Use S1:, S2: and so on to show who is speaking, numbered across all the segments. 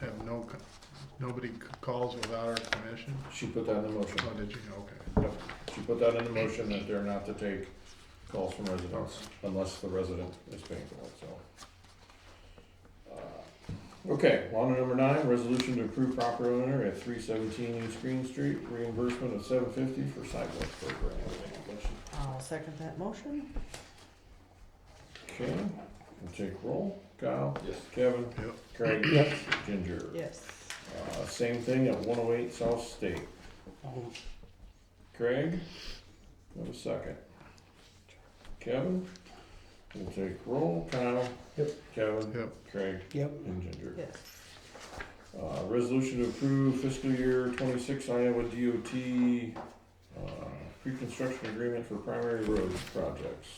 S1: have no, co- nobody c- calls without our permission?
S2: She put that in the motion.
S1: Oh, did you, okay.
S2: She put that in the motion that they're not to take calls from residents unless the resident is paying for it, so. Uh, Okay, on to number nine, resolution to approve proper owner at three seventeen East Green Street, reimbursement of seven fifty for sidewalk program.
S3: I'll second that motion.
S2: Okay, we'll take roll. Kyle?
S4: Yes.
S2: Kevin?
S1: Yep.
S2: Craig? Ginger?
S3: Yes.
S2: Uh, same thing at one oh eight South State. Craig, have a second. Kevin, we'll take roll, Kyle. Yep. Kevin,
S1: Yep,
S2: Craig,
S5: Yep.
S2: and Ginger.
S3: Yes.
S2: Uh, resolution to approve fiscal year twenty-six Iowa DOT, uh, pre-construction agreement for primary road projects.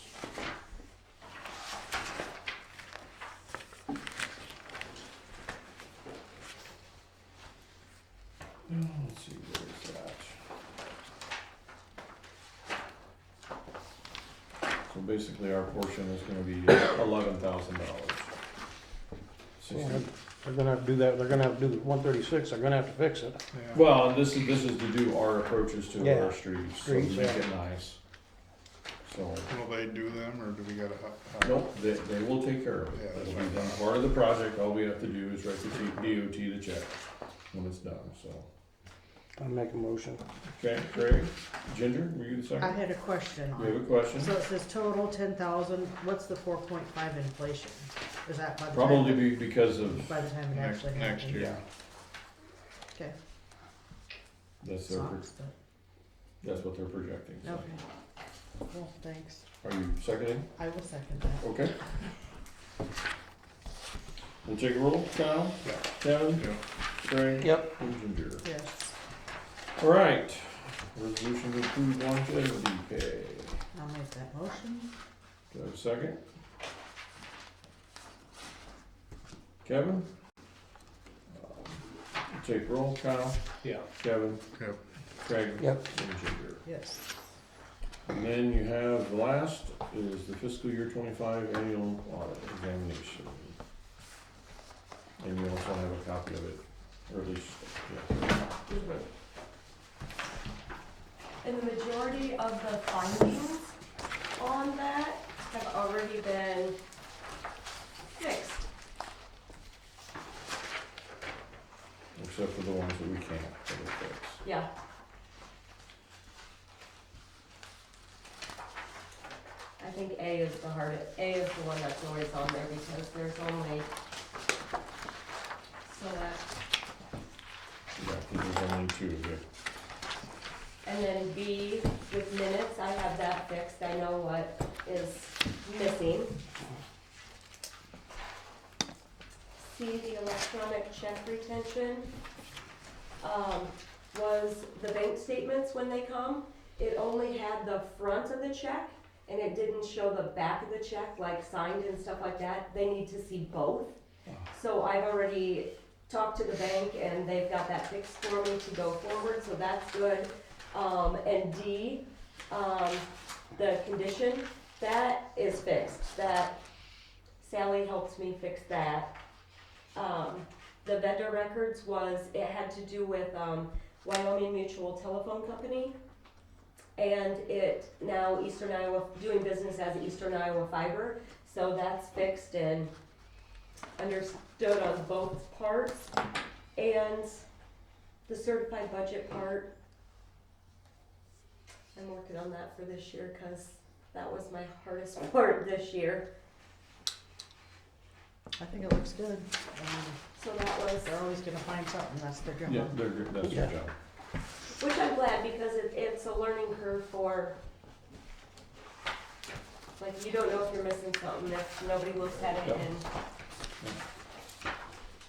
S2: Now, Let's see, where's that? So basically, our portion is gonna be eleven thousand dollars. Sixty,
S5: They're gonna have to do that, they're gonna have to do the one thirty-six, they're gonna have to fix it.
S1: yeah.
S2: Well, and this is, this is to do our approaches to
S5: Yeah.
S2: our streets, so
S5: Streets,
S2: make
S5: yeah.
S2: it nice. So,
S1: Will they do them, or do we gotta? h- h-
S2: nope, they, they will take care of
S1: Yeah,
S2: it,
S1: that's
S2: that'll be
S1: fine.
S2: done, part of the project, all we have to do is write the T- DOT the check when it's done, so.
S5: I'll make a motion.
S2: Okay, Craig, Ginger, were you the
S3: I
S2: second?
S3: had a question
S2: You
S3: on
S2: have a
S3: it.
S2: question?
S3: So it says total ten thousand, what's the four point five inflation? Is that by the time?
S2: Probably be because of,
S3: By the time it
S1: Next,
S3: actually happens?
S1: next year,
S3: Okay.
S2: that's their, pro-
S3: Sucks, but-
S2: that's what they're projecting, so.
S3: Okay. Well, thanks.
S2: Are you seconding?
S3: I will second that.
S2: Okay. We'll take a roll, Kyle?
S1: Yeah.
S2: Kevin?
S1: yeah.
S2: Craig?
S5: Yep.
S2: And Ginger.
S3: Yes,
S2: All right, resolution to approve longevity pay.
S3: I'll make that motion.
S2: Do I have a second? Kevin? Um, Take roll, Kyle,
S5: Yeah.
S2: Kevin,
S1: Yep.
S2: Craig.
S5: Yep.
S2: And Ginger.
S3: Yes.
S2: And then you have, the last is the fiscal year twenty-five annual audit examination. And you also have a copy of it, or at least, yeah.
S6: And the majority of the findings on that have already been fixed.
S2: except for the ones that we can't, that are fixed.
S6: Yeah, I think A is the hardest, A is the one that's always on there because there's only, so that,
S2: Yeah, 'cause there's only two, yeah.
S6: and then B with minutes, I have that fixed, I know what is missing. C, the electronic check retention, um, was the bank statements when they come, it only had the front of the check and it didn't show the back of the check, like signed and stuff like that, they need to see both. So I've already talked to the bank and they've got that fixed for me to go forward, so that's good. Um, and D, um, the condition, that is fixed, that Sally helps me fix that. Um, the vendor records was, it had to do with, um, Wyoming Mutual Telephone Company. And it, now Eastern Iowa, doing business as Eastern Iowa Fiber, so that's fixed and understood on both parts. And the certified budget part, I'm working on that for this year, cause that was my hardest part this year.
S3: I think it looks good. Um,
S6: So that was,
S3: They're always gonna find something, that's their
S2: Yeah,
S3: job.
S2: they're, good. that's your
S5: Yeah.
S2: job.
S6: which I'm glad because it, it's a learning curve for, like, you don't know if you're missing something if nobody looks at it
S2: Yeah.
S6: and,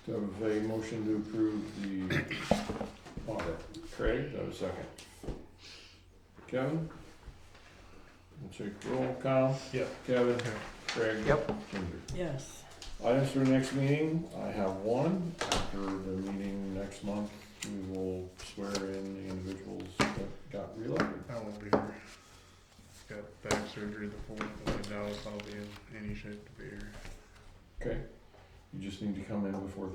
S2: Do I have a motion to approve the audit? Craig, do I have a second? Kevin? We'll take roll, Kyle?
S1: Yeah.
S2: Kevin?
S1: Yeah.
S2: Craig?
S5: Yep.
S2: Ginger.
S3: Yes.
S2: Items for next meeting, I have one, after the meeting next month, we will swear in the individuals that got reelected.
S1: I won't be here. Got back surgery the fourth, and I doubt I'll be in any shape to be here.
S2: Okay? You just need to come in before